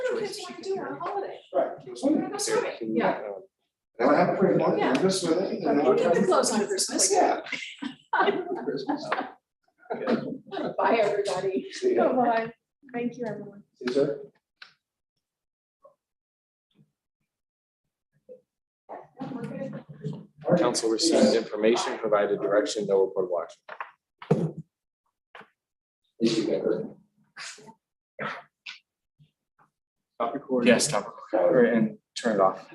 kids wanna do on a holiday? Right. We're gonna go swimming, yeah. And I have a pretty one, Yeah. I'm just with it. and You I'll need come- to close on Christmas. Yeah. Christmas. Bye, everybody. See ya. Bye-bye. Thank you, everyone. See you, sir. All right. Council received information, provided direction, no report of action. Thank you, Becker. Stop recording. Yes, stop recording and turn it off.